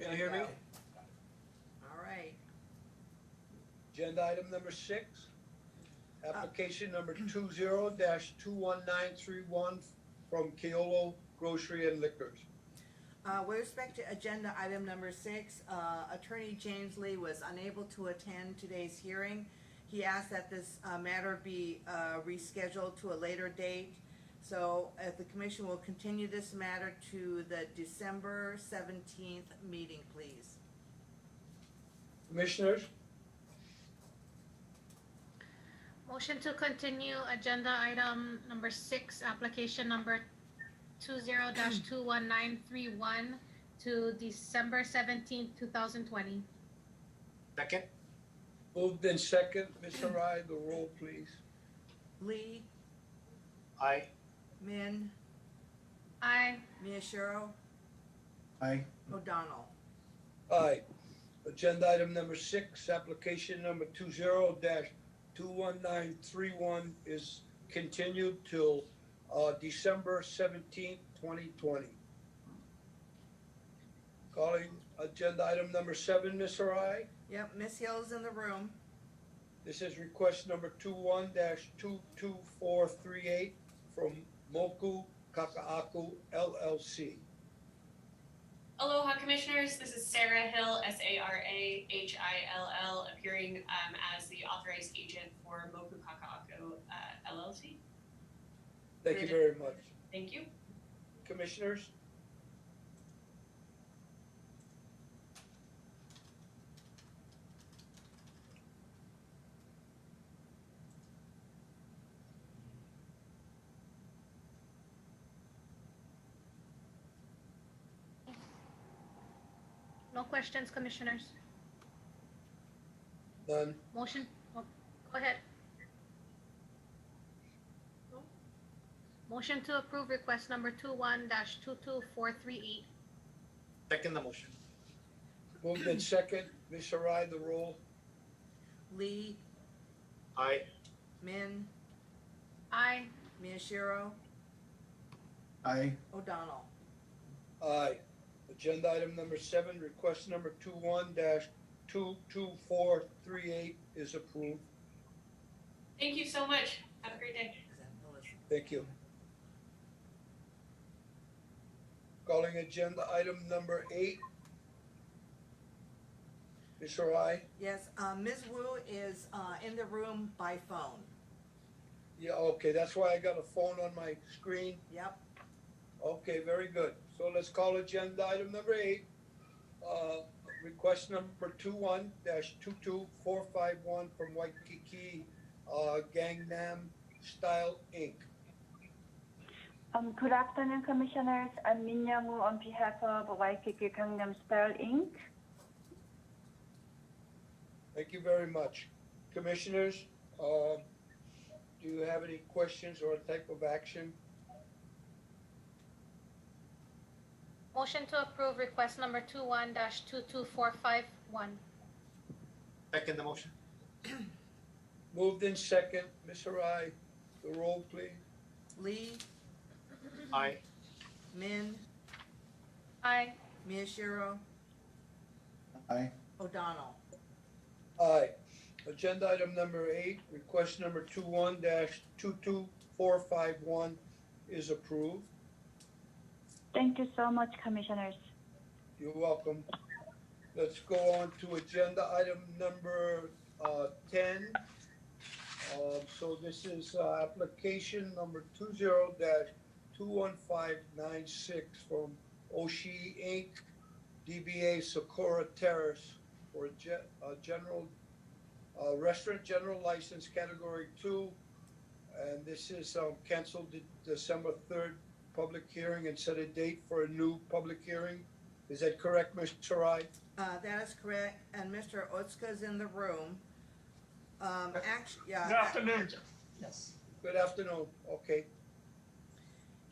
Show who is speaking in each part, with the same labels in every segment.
Speaker 1: Can you hear me?
Speaker 2: All right,
Speaker 1: Agenda item number six, application number two zero dash two one nine three one from Keolo Grocery and Liquors.
Speaker 2: uh, with respect to agenda item number six, uh, Attorney James Lee was unable to attend today's hearing. He asked that this, uh, matter be, uh, rescheduled to a later date. So, if the commission will continue this matter to the December seventeenth meeting, please.
Speaker 1: Commissioners,
Speaker 3: Motion to continue agenda item number six, application number two zero two one nine three one to December seventeenth, two thousand twenty.
Speaker 4: Second?
Speaker 1: moved in second, Mr. Harai, the roll please.
Speaker 2: Lee,
Speaker 4: Aye.
Speaker 2: Min,
Speaker 3: Aye.
Speaker 2: Miyashiro,
Speaker 4: Aye.
Speaker 2: O'Donnell.
Speaker 1: Aye. Agenda item number six, application number two zero dash two one nine three one is continued till, uh, December seventeenth, twenty twenty. Calling agenda item number seven, Ms. Arai.
Speaker 2: Yep, Miss Hill's in the room.
Speaker 1: This is request number two one dash two two four three eight from Moku Kakaaku LLC.
Speaker 5: Aloha Commissioners, this is Sarah Hill, S A R A H I L L, appearing um, as the authorized agent for Moku Kaka'ako uh, LLC.
Speaker 1: Thank you very much.
Speaker 5: Thank you.
Speaker 1: Commissioners,
Speaker 3: No questions, commissioners.
Speaker 1: none.
Speaker 3: Motion, oh, go ahead. Motion to approve request number two one dash two two four three eight.
Speaker 4: Second the motion.
Speaker 1: Moved in second, Ms. Arai, the roll.
Speaker 2: Lee,
Speaker 4: Aye.
Speaker 2: Min,
Speaker 3: Aye.
Speaker 2: Miyashiro,
Speaker 4: Aye.
Speaker 2: O'Donnell.
Speaker 1: Aye. Agenda item number seven, request number two one dash two two four three eight is approved.
Speaker 5: Thank you so much. Have a great day.
Speaker 2: Is that Melissa?
Speaker 1: Thank you. Calling agenda item number eight. Ms. Arai,
Speaker 2: Yes, uh, Ms. Wu is uh, in the room by phone.
Speaker 1: yeah, okay, that's why I got a phone on my screen.
Speaker 2: Yep.
Speaker 1: Okay, very good. So let's call agenda item number eight. Uh, Request number two-one dash two-two-four-five-one from Waikiki uh, Gangnam Style Inc.
Speaker 6: Um, Good afternoon, Commissioners. I'm Min Young-woo on behalf of Waikiki Gangnam Style Inc.
Speaker 1: Thank you very much. Commissioners, uh, do you have any questions or type of action?
Speaker 3: Motion to approve request number two one dash two two four five one.
Speaker 4: Second the motion.
Speaker 1: Moved in second. Ms. Arai, the roll, please.
Speaker 2: Lee,
Speaker 4: Aye.
Speaker 2: Min,
Speaker 3: Aye.
Speaker 2: Miyashiro,
Speaker 4: Aye.
Speaker 2: O'Donnell.
Speaker 1: Aye. Agenda item number eight, request number two-one dash two-two-four-five-one is approved.
Speaker 6: Thank you so much, Commissioners.
Speaker 1: You're welcome. Let's go on to agenda item number uh, 10. Uh, So this is uh, application number 20-21596 from Oshi Inc., DBA Socorro Terrace for a ge- a general, uh, restaurant general license category 2. And this is um, canceled de- December 3rd public hearing and set a date for a new public hearing. Is that correct, Ms. Sarai?
Speaker 2: Uh, That is correct, and Mr. Otsuka's in the room. Um, act-
Speaker 7: Good
Speaker 2: Yeah,
Speaker 7: afternoon.
Speaker 1: Good afternoon. Okay.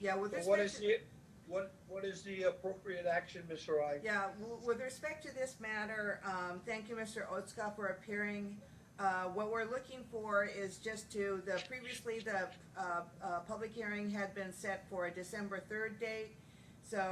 Speaker 2: yeah, with
Speaker 1: So
Speaker 2: respect
Speaker 1: What is
Speaker 2: to-
Speaker 1: the, what, what is the appropriate action, Ms. Sarai?
Speaker 2: Yeah, w- with respect to this matter, um, thank you, Mr. Otska, for appearing. Uh, what we're looking for is just to, the, previously, the, uh, uh, public hearing had been set for a December third date.